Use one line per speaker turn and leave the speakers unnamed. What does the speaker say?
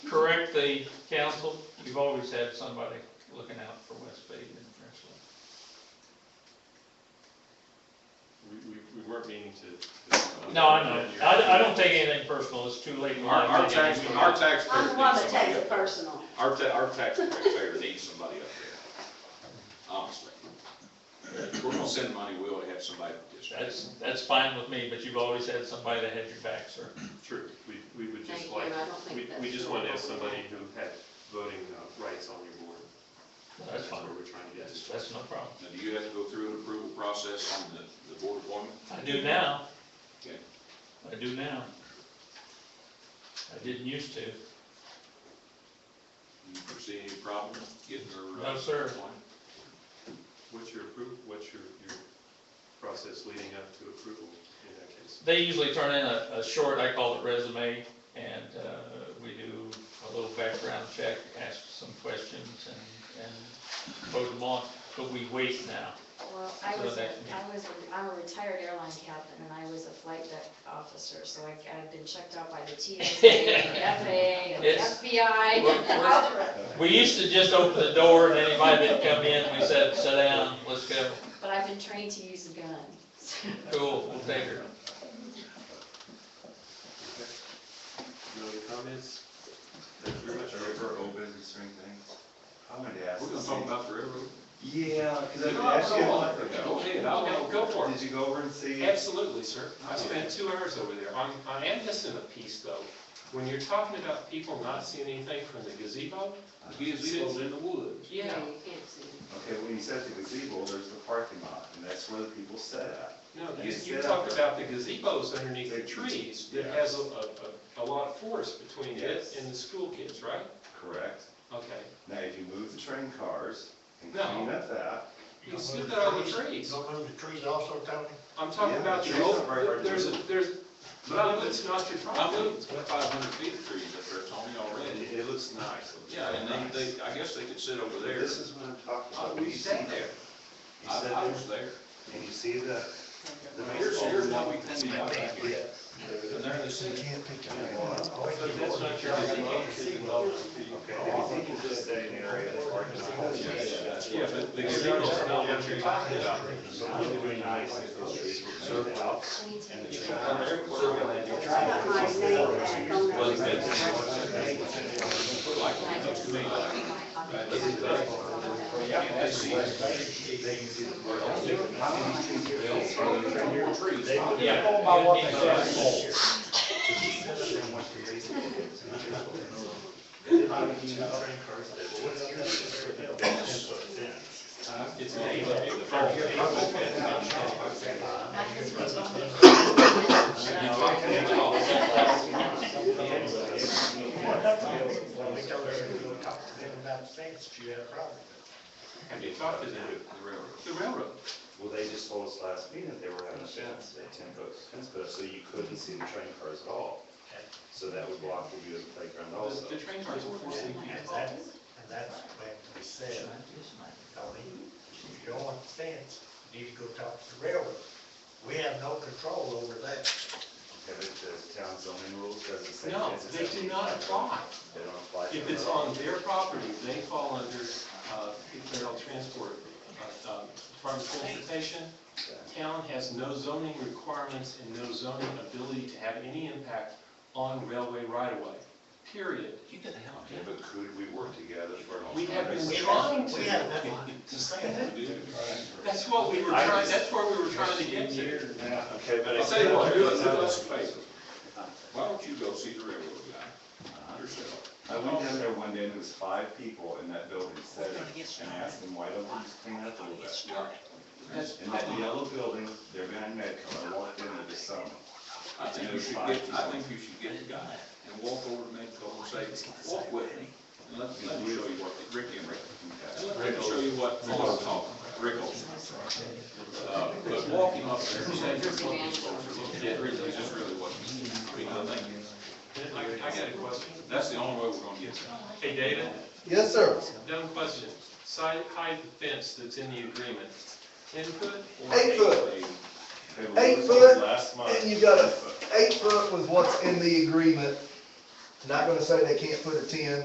correct the council, you've always had somebody looking out for West Bay and Princeton.
We, we, we weren't meaning to. to-
No, I know, I, I don't take anything personal, it's too late in
Our,
life.
our tax, our taxpayer
I'm
needs
the one that
somebody
takes
up
it
there.
personal.
Our ta, our taxpayer needs somebody up there, honestly. If We're gonna send money, we ought to have somebody participate.
That's, that's fine with me, but you've always had somebody that had your back, sir.
True, we, we would
Thank
just
you, I
like,
don't think
we,
that's.
we just want to have
appropriate.
somebody who had voting uh, rights on your board.
That's fine,
where we're trying to get
that's,
to.
that's no problem.
Now, do you have to go through an approval process on the, the board appointment?
I do now.
Okay.
I do now. I didn't used to.
Do you foresee any problem getting her? uh,
No, sir.
appointed?
What's your approval, what's your, your process leading up to approval in that case?
They usually turn in a, a short, I call it resume, and, uh, we do a little background check, ask some questions and, and vote them on, but we wait now.
Well, I
So
was, a-
that's me.
I was, a- I'm a retired airline captain, and I was a flight deck officer, so I, I've been checked out by the TSA, and the FAA, and the
It's-
FBI.
We're- we're- We used to just open the door and anybody that come in, we said, sit down, let's go.
But I've been trained to use a gun.
Cool, we'll take her.
No other comments? Thank you very much.
River, old business or anything? I wanted to ask.
We're gonna talk about the railroad.
Yeah, because
Go
I asked you.
on, Go ahead, I'll go, go for it.
Did you go over and see?
Absolutely, sir.
I spent
two hours over there.
I, I am missing a piece though. When you're talking about people not seeing anything from the gazebo,
Gazebo's in the woods.
No, you can't see.
Okay, when you said the gazebo, there's the parking lot, and that's where the people sit at.
No, you,
You
you
sit
talk
up.
about the gazebos underneath the
They-
trees that
yeah.
has a, a, a- a lot of forest between it
Yes.
and the school kids, right?
Correct.
Okay.
Now, if you move the train cars and
No.
clean up that,
You still got all the trees.
Don't move the trees also, Tony?
I'm talking
Yeah,
about
the
the,
trees
old-
are very hard to
there's, a
do.
there's,
But I moved,
it's not your
I
problem.
moved five hundred feet of trees up there, Tony, already.
it, it looks nice. It looks
Yeah, and they,
nice.
they, I guess they could sit over
But
there.
This is what I'm talking
I
about.
we
You
sat
sit
there.
You
I,
sit
I
there,
was there.
and you see the, the
Here's,
baseball.
here's
field.
what we cleaned it up back here. And there they
You
sit.
can't pick
Yeah.
up one.
But that's not your gazebo.
Okay, if you can just stay in the area that's parking lot.
Yeah, but the gazebo's not what you're talking about.
So it would be nice if those trees were cleaned out.
We need to-
And the
You
trees-
come out there, put it on
I
that.
got my name back on that.
Well, Put like, it looks to me like. Yeah, they see it.
They can see the bird.
They'll throw it in your trees.
Yeah.
It's me, but it's the-
Not because we told you.
We told her to go talk to them about things if you had a problem.
Have you talked to them? The railroad. The railroad.
Well, they just told us last meeting that they were having a fence, a ten foot fence put up, so you couldn't see the train cars at all. So that would block the view of the playground also.
The train cars were forcing
And
people.
that's, and that's when we said, Tony, if you don't want the fence, you need to go talk to the railroad. We have no control over that.
Okay, but the town zoning rules doesn't say.
No,
fences
they
have to
do
be
not
fence.
apply.
They don't apply. to
If it's
them.
on their property, they fall under, uh, federal transport, uh, um, Department of Transportation. Town has no zoning requirements and no zoning ability to have any impact on railway right-of-way, period.
You get the hell
Okay, But could we work together for an
We have
alternative?
been trying
We have no
to.
one.
That's what we were
I
trying,
just-
that's where we were trying to get to.
Okay, but.
I'll
it's-
tell you what, do us, do us a favor. Why don't you go see the railroad guy yourself?
I went down there one day and there was five people in that building sitting, and I asked them, why don't we just clean it up a little bit?
That's
In that yellow building, they're behind Medco, I walked in there this summer.
I think you should get, I think you should get the guy and walk over to Medco and say, walk with me. And let, let me show you what, they- Ricky and Rick. And let me show you what, I'll talk, Rick Olson. Uh, But walk him up there and say, here's what these folks are looking at, really, this is really what, I mean, I think,
I, I got a question.
that's the only way we're gonna get there.
Hey, David,
Yes, sir.
dumb question. Side, hide the fence that's in the agreement. Ten foot or
Eight foot.
They were
Eight
losing
foot,
Last month.
And you got a eight foot was what's in the agreement,
Not gonna say they can't put a ten